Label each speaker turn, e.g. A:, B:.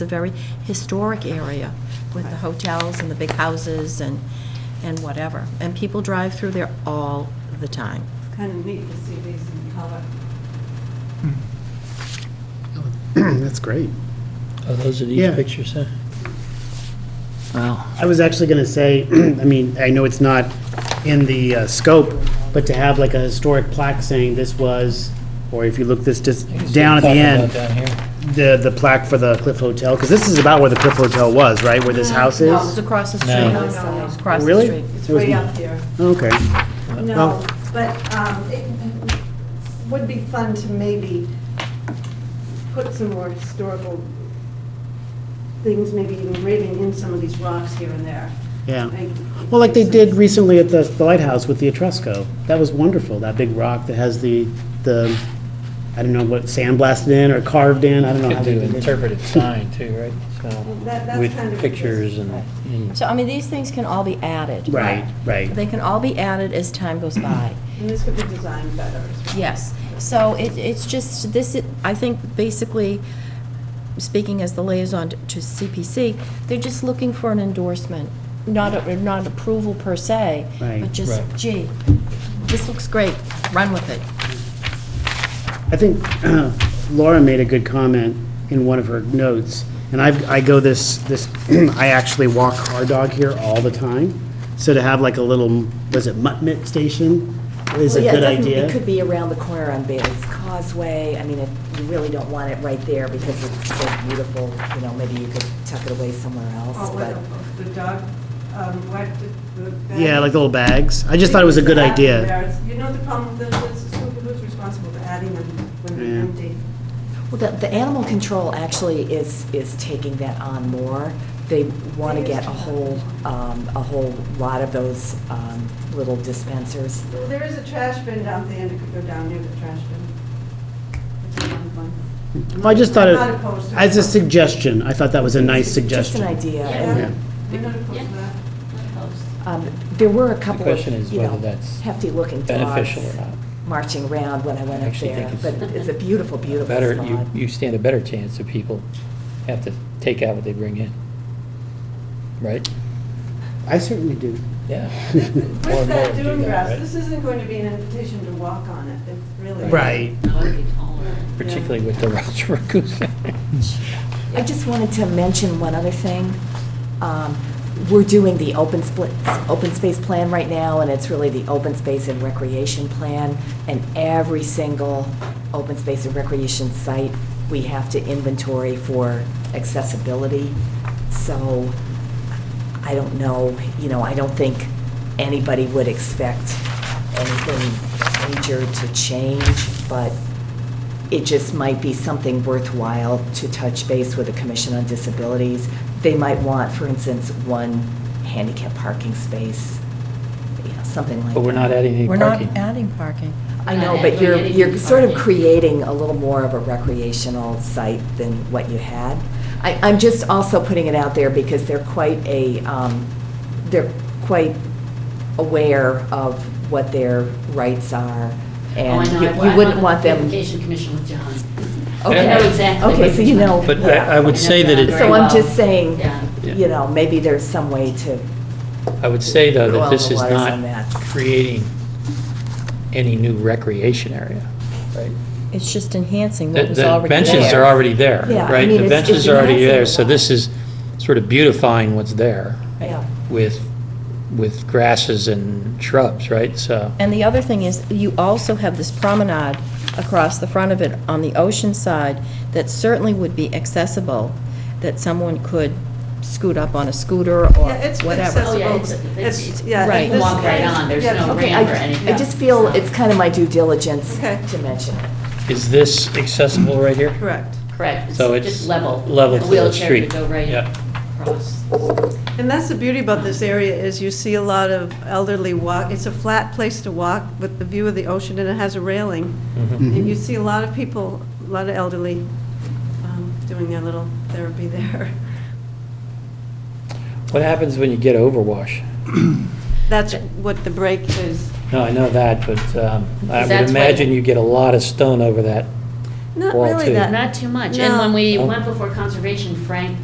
A: It's a very historic area with the hotels and the big houses and, and whatever. And people drive through there all the time.
B: It's kind of neat to see these in color.
C: That's great.
D: Oh, those are these
C: Yeah.
D: pictures, huh? Wow.
C: I was actually going to say, I mean, I know it's not in the uh, scope, but to have like a historic plaque saying this was, or if you look this just down at the
D: Talking
C: end,
D: about Down here.
C: the, the plaque for the Cliff Hotel, because this is about where the Cliff Hotel was, right, where this house
A: No, it's
C: is?
A: across the street.
D: No.
B: No, no, no.
A: It's across the
C: Really?
A: street.
B: It's
C: It was-
B: way up here.
C: Okay.
B: No,
C: Well-
B: but um, it would be fun to maybe put some more historical things, maybe even raven in some of these rocks here and there.
C: Yeah.
B: Like-
C: Well, like they did recently at the the lighthouse with the Etrusco. That was wonderful, that big rock that has the, the, I don't know what, sandblasted in or carved in, I don't know. how
D: Could
C: they
D: do
C: did it.
D: interpretive sign too, right?
B: that-
D: So,
B: that's kind
D: with
B: of-
D: pictures and, and-
A: So, I mean, these things can all be added.
C: Right, right.
A: They can all be added as time goes by.
B: And this could be designed better. as well.
A: Yes, so it, it's just, this, i- I think basically, speaking as the liaison to CPC, they're just looking for an endorsement, not, a- not approval per se,
C: Right.
A: but just,
D: Right.
A: gee, this looks great, run with it.
C: I think Laura made a good comment in one of her notes, and I've, I go this, this, I actually walk Hard Dog here all the time, so to have like a little, was it Mutt Mitt Station is a
E: Well, yeah, it
C: good
E: doesn't-
C: idea.
E: It could be around the corner on Bailey's Causeway. I mean, it- you really don't want it right there because it's so beautiful, you know, maybe you could tuck it away somewhere else,
B: Oh,
E: but,
B: what the- the dog, um, what the- the. bag-
C: Yeah, like the little bags. I just thought it was a good
B: Adding
C: idea.
B: there is- You know the problem, with this is who- who's responsible for adding them when they're
C: Yeah.
B: empty?
E: well, the, the animal control actually is, is taking that on more. They want to get a whole, um, a whole lot of those, um, little dispensers.
B: Well, There is a trash bin down there, and it could go down near the trash bin. It's a long one.
C: Well, I just thought
B: I'm
C: it,
B: not opposed to
C: as a
B: it.
C: suggestion, I thought that was a nice
E: Just an
C: suggestion.
E: idea.
B: Yeah,
E: And,
B: I'm not opposed to that.
E: um, There were a couple
D: question is
E: of, you know,
D: whether that's
E: hefty-looking dogs
D: beneficial or not.
E: marching around when I went
D: I
E: up
D: actually
E: there,
D: think
E: but
D: it's
E: it's a beautiful, beautiful
D: better, you,
E: spot.
D: you stand a better chance of people have to take out what they bring in. Right?
C: I certainly do.
D: Yeah. More
B: With
D: and more
B: that
D: do
B: dune
D: that,
B: grass,
D: right?
B: this isn't going to be an invitation to walk on it, it's really.
C: Right.
D: Particularly with the Welsh Raccoon.
E: I just wanted to mention one other thing. Um, We're doing the open split, open space plan right now, and it's really the open space and recreation plan. And every single open space and recreation site, we have to inventory for accessibility. So I don't know, you know, I don't think anybody would expect anything major to change, but it just might be something worthwhile to touch base with the Commission on Disabilities. They might want, for instance, one handicap parking space, you know, something like that.
D: But we're not adding any
A: We're not
D: parking.
A: adding parking.
E: I know,
F: Not
E: but you're,
F: adding
E: you're sort of
F: parking.
E: creating a little more of a recreational site than what you had. I, I'm just also putting it out there because they're quite a, um, they're quite aware of what their rights are.
F: Oh, I
E: And
F: know.
E: you-
F: I-
E: you
F: I'm
E: wouldn't
F: on
E: want
F: the
E: them.
F: Beautification Commission with John.
E: Okay.
F: I know exactly.
E: Okay, so you know.
D: But
E: yeah.
D: I, I would say that it's,
E: So I'm just saying,
F: Yeah.
E: you know, maybe there's some way to,
D: I would say though
E: Well,
D: that this
E: the
D: is
E: water's
D: not
E: on that.
D: creating any new recreation area, right?
A: It's just enhancing
D: The-
A: what was
D: The
A: already there.
D: benches are already there,
E: Yeah, I
D: right?
E: mean,
D: The
E: it's-
D: benches
E: it's
D: are already
E: enhancing
D: there,
E: the
D: so this is sort of beautifying what's there
E: yeah.
D: with, with grasses and shrubs, right? So,
A: And the other thing is, you also have this promenade across the front of it on the ocean side that certainly would be accessible, that someone could scoot up on a scooter or
B: Yeah, it's
A: whatever.
F: Oh, yeah,
B: accessible.
F: it's- it's-
B: It's, yeah.
A: Right.
B: this-
F: Walk right on, there's
B: yeah,
F: no
B: okay,
F: ramp or anything.
E: I, I just feel it's kind of my due diligence
B: Okay.
E: to mention it.
D: is this accessible right here?
B: Correct.
F: Correct.
D: So it's
F: Just level.
D: level to the
F: Wheelchair
D: street.
F: could go right
D: Yeah.
F: across.
B: And that's the beauty about this area, is you see a lot of elderly walk, it's a flat place to walk with the view of the ocean, and it has a railing. And you see a lot of people, a lot of elderly, um, doing their little therapy there.
D: What happens when you get overwash?
B: That's what the break is.
D: No, I know that, but um, I
F: Is
D: would
F: that's what-
D: imagine you get a lot of stone over that
B: Not
D: Well,
B: really
D: too.
B: that.
F: Not too much. And when we
D: No.
F: went before conservation, Frank